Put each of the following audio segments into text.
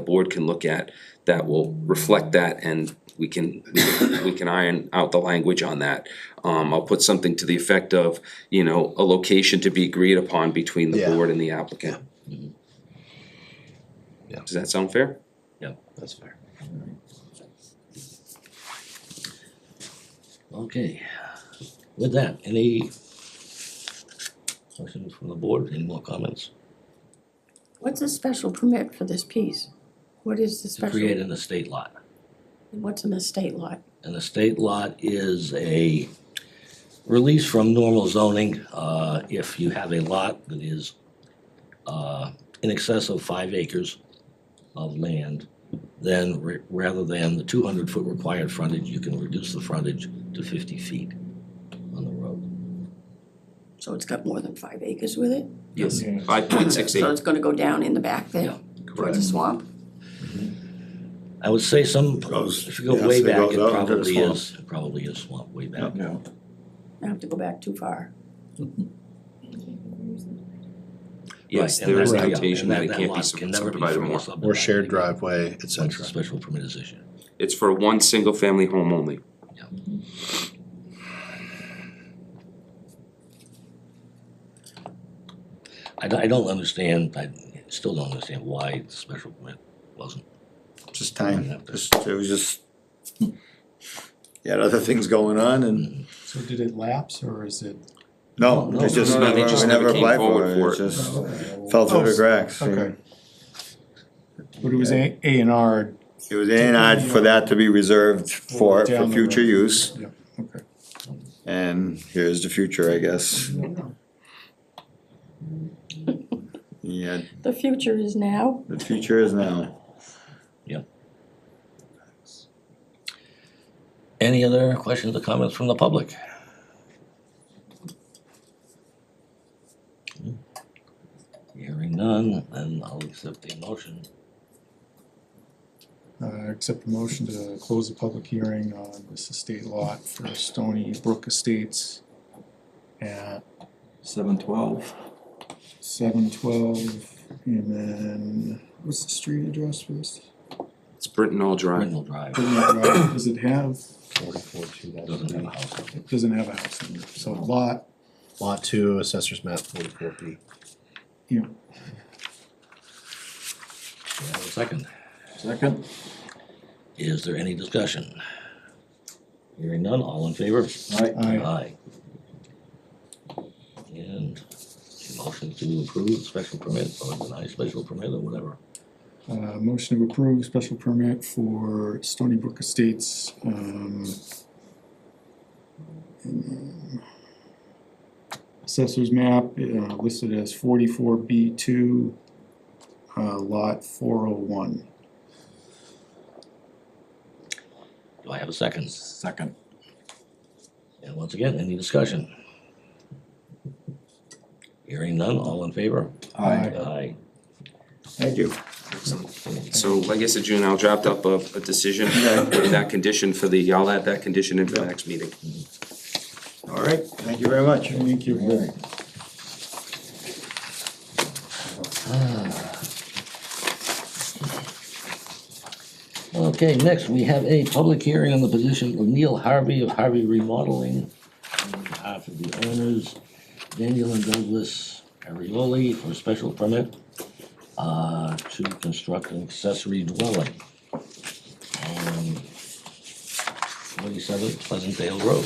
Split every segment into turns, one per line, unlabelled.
the board can look at that will reflect that and we can, we can- we can iron out the language on that. Um, I'll put something to the effect of, you know, a location to be agreed upon between the
Yeah.
board and the applicant. Mm-hmm.
Yeah.
Does that sound fair?
Yeah,
That's fair.
okay. With that, any questions from the board, any more comments?
What's a special permit for this piece? What is the
To
special?
create an estate lot.
What's an estate lot?
An estate lot is a release from normal zoning, uh, if you have a lot that is, uh, in excess of five acres of land, then re- rather than the two hundred foot required frontage, you can reduce the frontage to fifty feet on the road.
So it's got more than five acres with it?
Yes. Five point six
So
eight,
it's gonna go down in the back
Yeah.
there, towards the swamp?
I would say some,
Goes-
if you go
yeah,
way
so it
back,
goes
it
out into the
probably
swamp.
is, it probably is swamp way back.
I have to go back too far.
yes,
Right, and
there is
that-
a
yeah,
notation
and
that it
that
can't be
lot can never be
subdivided
freely
more.
Or
subdivided
shared
because
driveway, et
once the
cetera.
Special permit is issued.
It's for one single family home only.
I don't, I don't understand, I still don't understand why the special permit wasn't.
Just
Yeah.
time, just, it was just. You had other things going on and,
So did it lapse or is it?
no,
No,
it's just,
no,
we
no, they just never
never
came
applied
forward
for
for
it, it
it.
just
But
fell through the
Oh,
cracks.
okay.
and
it was A A and R,
It was in odd for that to be reserved for,
Down
for
the
future
road.
use,
okay.
and here's the future, I guess. Yeah,
The future is now.
the future is now.
Any other questions or comments from the public? Hmm. Hearing none, then I'll accept the motion.
Uh, accept the motion to close the public hearing on this estate lot for Stony Brook Estates at
Seven twelve.
seven twelve, and then, what's the street address for this?
It's Britton All Drive.
Ringel Drive
Does it have,
Forty-four, two
doesn't have a
thousand.
house on it.
it doesn't have a house number, so lot,
Lot two, assessor's map forty-four B.
you know,
Do I have a Second,
Second.
is there any discussion? Hearing none, all in favor?
Right.
I,
Aye. And a motion to approve special permit or deny special permit or whatever.
Uh, motion to approve special permit for Stony Brook Estates, um. and, um, Assessor's map, uh, listed as forty-four B two, uh, lot four oh one.
Do I have a second?
Second.
And once again, any discussion? Hearing none, all in favor?
Aye.
Aye.
Thank you.
So I guess in June, I'll draft up a, a decision with that condition for the, I'll add that condition in for the next meeting.
All right, thank you very much.
Thank you.
Ah. Okay, next, we have a public hearing on the position of Neil Harvey of Harvey Remodeling on behalf of the owners, Daniel and Douglas Arioli for a special permit uh, to construct an accessory dwelling on forty-seven Pleasantdale Road.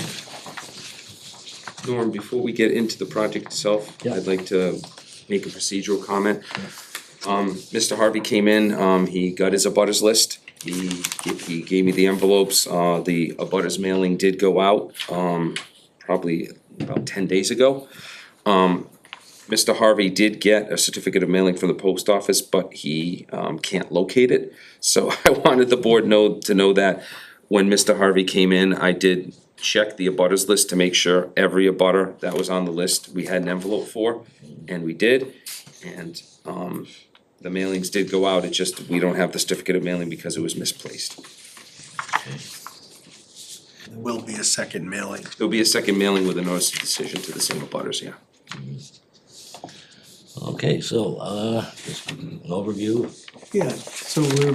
Norm, before we get into the project itself,
Yeah.
I'd like to make a procedural comment. Um, Mr. Harvey came in, um, he got his abutters list, he, he gave me the envelopes, uh, the abutters mailing did go out, um, probably about ten days ago. Um, Mr. Harvey did get a certificate of mailing from the post office, but he, um, can't locate it. So I wanted the board know, to know that when Mr. Harvey came in, I did check the abutters list to make sure every abutter that was on the list, we had an envelope for, and we did. And, um, the mailings did go out, it just, we don't have the certificate of mailing because it was misplaced.
There will be a second mailing.
There'll be a second mailing with a notice of decision to the same abutters, yeah.
Okay, so, uh, just an overview.
Yeah, so we're